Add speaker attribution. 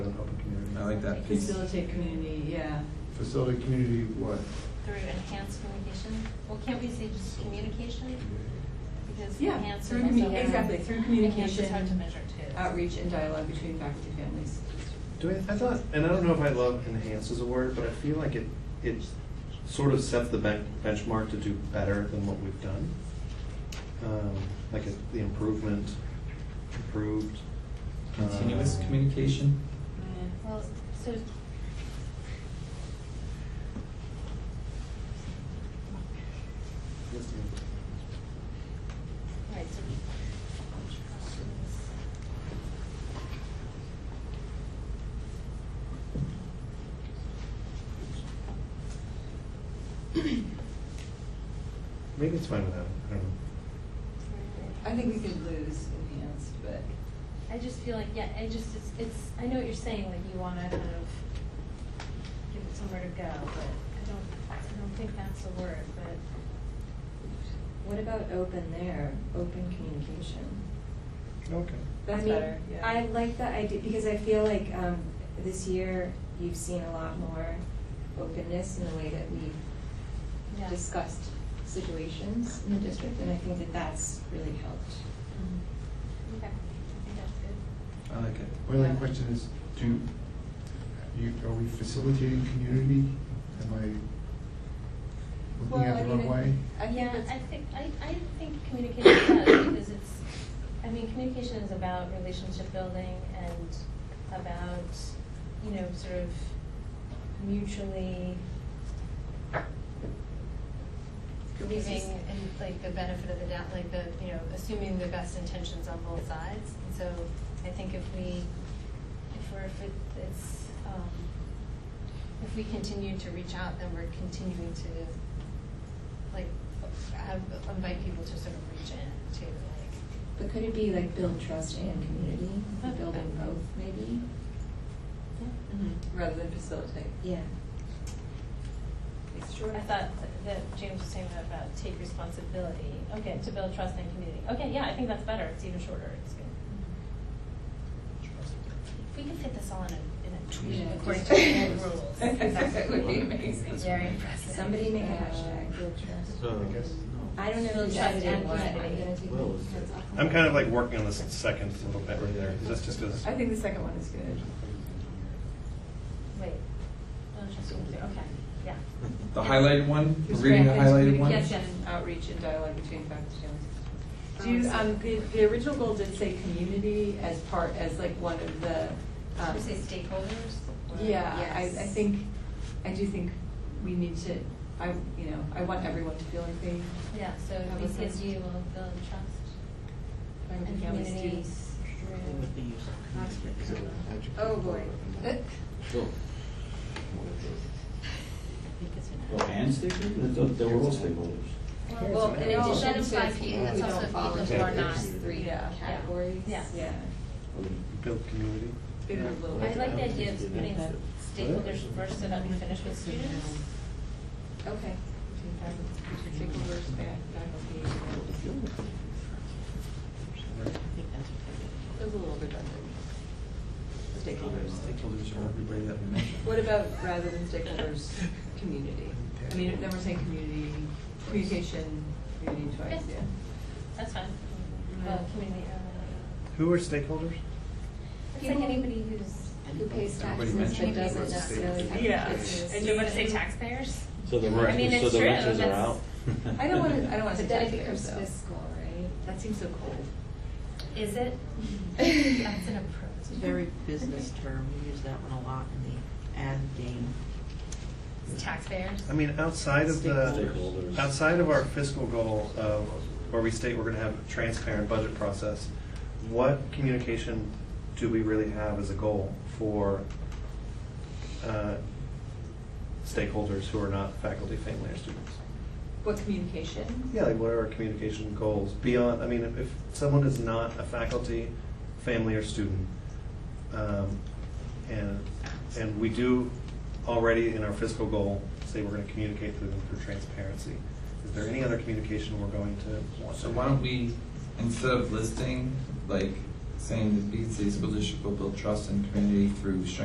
Speaker 1: I like that piece.
Speaker 2: Facilitate community, yeah.
Speaker 3: Facilitate community what?
Speaker 4: Through enhanced communication, well, can't we say just communication? Because
Speaker 2: Yeah,
Speaker 4: enhanced
Speaker 2: through
Speaker 4: is also-
Speaker 2: commu- exactly, through
Speaker 4: Enhanced is hard to
Speaker 2: communication,
Speaker 4: measure too.
Speaker 2: Outreach and dialogue between faculty and families.
Speaker 5: Do I, I thought, and I don't know if I love enhance as a word, but I feel like it, it sort of sets the ben- benchmark to do better than what we've done. Um, like it- the improvement, improved. uh,
Speaker 1: Continuous communication.
Speaker 4: Well, so.
Speaker 5: Yes, ma'am.
Speaker 4: Right, so we.
Speaker 5: Maybe it's fine without, it, I don't know.
Speaker 2: I think we could lose enhanced, but
Speaker 4: I just feel like, yeah, I just, it's, it's, I know what you're saying, like you wanna kind of give it somewhere to go, but I don't, I don't think that's the word, but.
Speaker 6: What about open there, open communication?
Speaker 5: Okay.
Speaker 2: that's
Speaker 6: I mean,
Speaker 2: better, yeah.
Speaker 6: I like that idea because I feel like um, this year you've seen a lot more openness in the way that we
Speaker 4: Yeah.
Speaker 6: have discussed situations in the district, and I think that that's really helped.
Speaker 4: Mm-hmm. Okay, I think that's good.
Speaker 1: I like it.
Speaker 3: My only question is, do, you, are we facilitating community? Am I looking at the wrong way?
Speaker 2: I think
Speaker 4: Yeah,
Speaker 2: that's-
Speaker 4: I think, I, I think communication does, because it's, I mean, communication is about relationship building and about, you know, sort of mutually
Speaker 6: This
Speaker 4: giving,
Speaker 6: is-
Speaker 4: and like the benefit of the doubt, like the, you know, assuming the best intentions on both sides. And so I think if we, if we're, if it- it's, um, if we continue to reach out, then we're continuing to, like, have, invite people to sort of reach in to, like,
Speaker 6: But could it be like build trust and community, building both maybe?
Speaker 2: Mhm, Rather than facilitate.
Speaker 6: Yeah.
Speaker 4: I thought that James was saying that about take responsibility, okay, to build trust and community. Okay, yeah, I think that's better, it's even shorter, it's good. If we could fit this all in a, in a tweet
Speaker 6: Yeah,
Speaker 4: according
Speaker 6: just-
Speaker 4: to the rules.
Speaker 2: That would be amazing.
Speaker 4: It's very impressive.
Speaker 6: Somebody make a
Speaker 2: Uh,
Speaker 6: hashtag, build trust.
Speaker 5: So,
Speaker 3: I guess,
Speaker 6: I don't know
Speaker 4: Build
Speaker 6: who's
Speaker 4: trust
Speaker 6: edited
Speaker 4: and
Speaker 6: what, I'm
Speaker 4: community.
Speaker 6: gonna take.
Speaker 5: Well,
Speaker 6: my hands off
Speaker 5: I'm kind of like working on this second little bit right there, 'cause that's just as.
Speaker 2: I think the second one is good.
Speaker 4: Wait. Oh, trust and community, okay, yeah.
Speaker 1: The highlighted one, we're reading the highlighted one?
Speaker 4: Yes, yes.
Speaker 2: Outreach and dialogue between faculty and families. Do you, um, the, the original goal did say community as part, as like one of the, um,
Speaker 4: Should we say stakeholders? or-
Speaker 2: yeah, I, I
Speaker 4: Yes.
Speaker 2: think, I do think we need to, I, you know, I want everyone to feel like they,
Speaker 4: Yeah, so
Speaker 2: That was
Speaker 4: BCSU will build trust
Speaker 2: find
Speaker 4: and
Speaker 2: family
Speaker 4: community
Speaker 2: students.
Speaker 4: through.
Speaker 6: Oh, boy.
Speaker 2: Uh,
Speaker 7: Well, and stakeholders, They- they were all stakeholders.
Speaker 6: Well, in
Speaker 4: Well,
Speaker 6: addition
Speaker 4: that
Speaker 6: to
Speaker 4: implies
Speaker 6: people
Speaker 4: people
Speaker 6: who
Speaker 4: who
Speaker 6: don't
Speaker 4: don't
Speaker 6: fall
Speaker 4: follow
Speaker 6: into
Speaker 4: or
Speaker 6: those
Speaker 4: not.
Speaker 6: three
Speaker 2: Yeah. Yeah.
Speaker 6: categories.
Speaker 4: Yeah.
Speaker 2: Yeah,
Speaker 5: Build community.
Speaker 2: bigger little.
Speaker 4: I like the idea of putting stakeholders first so that we finish with students.
Speaker 6: Okay.
Speaker 2: Stakeholders, faculty. That's a little redundant. Stakeholders.
Speaker 1: Oh, Stakeholders are everybody that we mentioned.
Speaker 2: What about rather than stakeholders, community? I mean, then we're saying community, communication, community twice, yeah.
Speaker 4: That's fine. Well, community, uh,
Speaker 5: Who are stakeholders?
Speaker 4: it's like anybody who's.
Speaker 6: Who pays
Speaker 1: Everybody
Speaker 6: taxes but
Speaker 1: mentioned
Speaker 6: doesn't
Speaker 1: it.
Speaker 6: necessarily have. a business.
Speaker 4: And you want to say taxpayers?
Speaker 7: So the
Speaker 4: I mean,
Speaker 7: rich, so
Speaker 4: it's
Speaker 7: the
Speaker 4: true,
Speaker 7: riches are
Speaker 4: that's-
Speaker 7: out.
Speaker 2: I don't want to, I don't want to
Speaker 6: But
Speaker 2: say
Speaker 6: then it
Speaker 2: taxpayers,
Speaker 6: becomes
Speaker 2: though.
Speaker 6: fiscal,
Speaker 2: That seems so cold.
Speaker 4: Is it?
Speaker 6: right?
Speaker 4: That's an approach.
Speaker 8: It's a very business term, we use that one a lot in the ad game.
Speaker 4: Taxpayers.
Speaker 5: I mean, outside of the,
Speaker 7: Stakeholders.
Speaker 5: outside of our fiscal goal of, where we state we're gonna have a transparent budget process, what communication do we really have as a goal for uh, stakeholders who are not faculty, family, or students?
Speaker 2: What communication?
Speaker 5: Yeah, like what are our communication goals beyond, I mean, if, if someone is not a faculty, family, or student, um, and, and we do already in our fiscal goal, say we're gonna communicate through them through transparency, is there any other communication we're going to want?
Speaker 1: So why don't we, instead of listing, like, saying the BC School District will build trust and community through strengthening